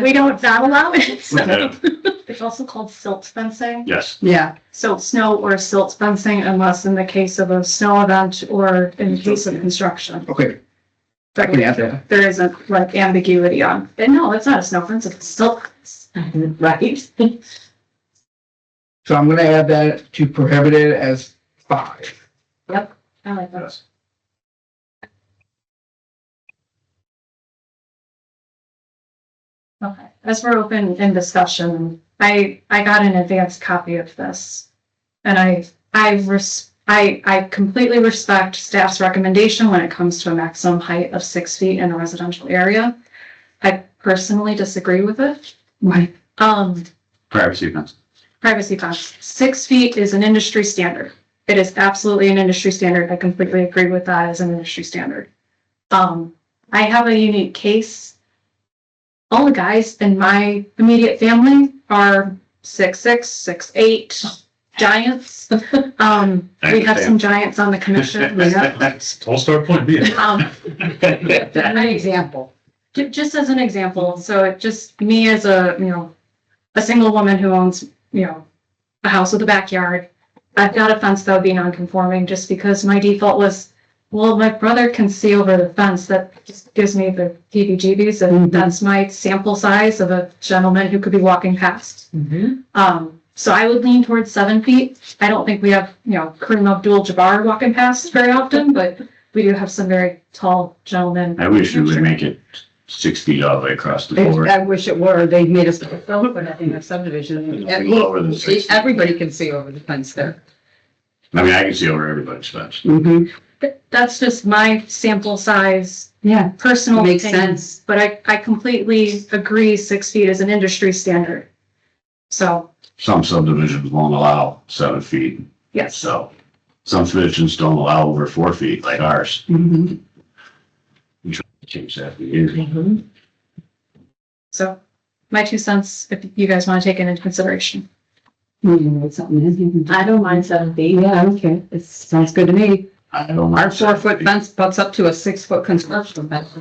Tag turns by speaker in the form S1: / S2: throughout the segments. S1: We don't not allow it.
S2: Yeah.
S1: It's also called silt fencing.
S2: Yes,
S3: Yeah,
S1: So snow or silt fencing unless in the case of a snow event or in the case of construction.
S3: okay. That can add that.
S1: There isn't like ambiguity on, and no, it's not a snow fence, it's a silt. fence. Right?
S3: So I'm gonna add that to prohibited as five.
S1: I like that.
S2: yes.
S1: Okay, as we're open in discussion, I, I got an advanced copy of this. And I, I res, I, I completely respect staff's recommendation when it comes to a maximum height of six feet in a residential area. I personally disagree with it.
S3: Why?
S1: Um,
S2: Privacy fence.
S1: privacy fence, six feet is an industry standard. It is absolutely an industry standard. I completely agree with that as an industry standard. Um, I have a unique case. All the guys in my immediate family are six, six, six, eight giants. Um, we have some giants on the commission. We have-
S2: All star point B.
S1: Um,
S4: An example.
S1: Ju- just as an example, so it just me as a, you know, a single woman who owns, you know, a house with a backyard, I've got a fence that would be non-conforming just because my default was, well, my brother can see over the fence. That just gives me the heebie-jeebies and
S4: Mhm.
S1: that's my sample size of a gentleman who could be walking past.
S4: Mhm.
S1: Um, so I would lean towards seven feet. I don't think we have, you know, Kareem Abdul-Jabbar walking past very often, but we do have some very tall gentlemen.
S2: I wish we would make it six feet all the way across the board.
S4: I wish it were, they made us, so, but I think a subdivision, at
S2: Well, over the six
S4: least,
S2: feet.
S4: everybody can see over the fence there.
S2: I mean, I can see over everybody's fence.
S4: Mm-hmm.
S1: Th- That's just my sample size,
S4: Yeah.
S1: personal
S4: Makes
S1: opinion,
S4: sense.
S1: but I, I completely agree six feet is an industry standard. So,
S2: Some subdivisions won't allow seven feet,
S1: yes,
S2: so some subdivisions don't allow over four feet like ours.
S4: Mm-hmm.
S2: Change that for years.
S1: so my two cents, if you guys want to take it into consideration.
S4: I don't mind seven feet. Yeah, I don't care, it sounds good to me.
S2: I don't.
S4: Our four foot fence butts up to a six foot construction fence, so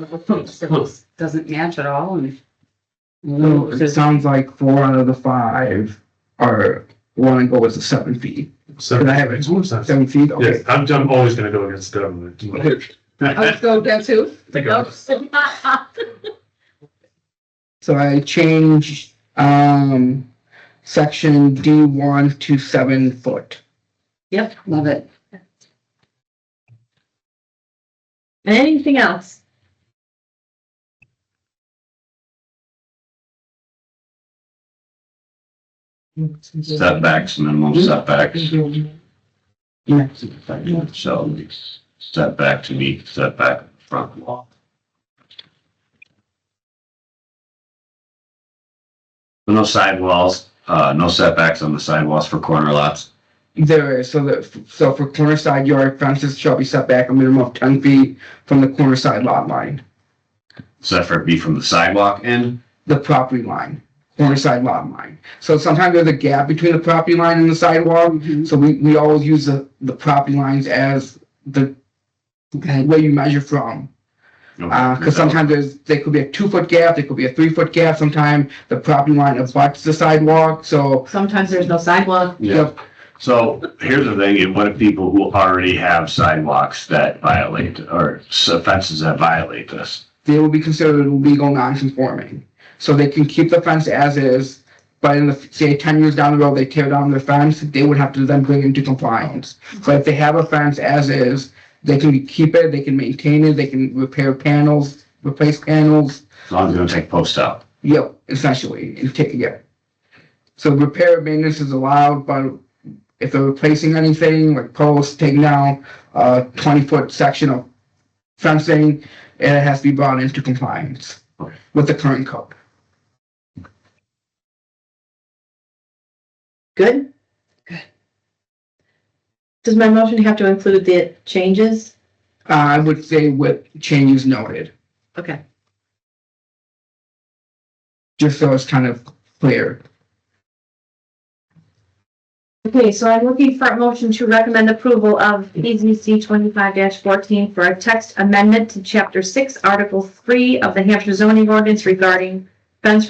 S4: it doesn't match at all and.
S2: Oh,
S3: So it sounds like four out of the five are, wanna go with the seven feet. Can I have it?
S5: Yes,
S3: Seven feet, okay.
S5: I'm, I'm always gonna go against them.
S2: Oh,
S4: Let's go down to.
S3: So I changed, um, section D one to seven foot.
S4: Yep, love it. Anything else?
S2: Setbacks,
S4: Mm-hmm.
S2: minimum setbacks.
S3: Yeah.
S2: So setback to meet setback front wall. No sidewalls, uh, no setbacks on the sidewalls for corner lots.
S3: There is, so that, so for corner side yard fences shall be set back a minimum of ten feet from the corner side lot line,
S2: Except for it be from the sidewalk end.
S3: the property line, corner side lot line. So sometimes there's a gap between the property line and the sidewalk, so we, we always use the, the property lines as the
S4: Okay,
S3: way you measure from. Uh, cause sometimes there's, there could be a two foot gap, there could be a three foot gap, sometime the property line abuts the sidewalk, so.
S4: sometimes there's no sidewalk.
S2: Yeah, so here's the thing, and what if people who already have sidewalks that violate, or fences that violate this?
S3: they will be considered legal non-conforming. So they can keep the fence as is, but in the, say, ten years down the road, they tear down their fence, they would have to then bring it into compliance. But if they have a fence as is, they can keep it, they can maintain it, they can repair panels, replace panels,
S2: As long as they don't take posts out.
S3: yep, essentially, and take, yeah. So repair and maintenance is allowed, but if they're replacing anything, like posts, taking down a twenty-foot section of fencing, it has to be brought into compliance
S2: Okay.
S3: with the current code.
S6: Good? Good. Does my motion have to include the changes?
S3: I would say with changes noted,
S6: Okay.
S3: just so it's kind of clear.
S6: Okay, so I'm looking for a motion to recommend approval of PZC twenty-five fourteen for a text amendment to chapter six, article three of the Hampshire zoning ordinance regarding fence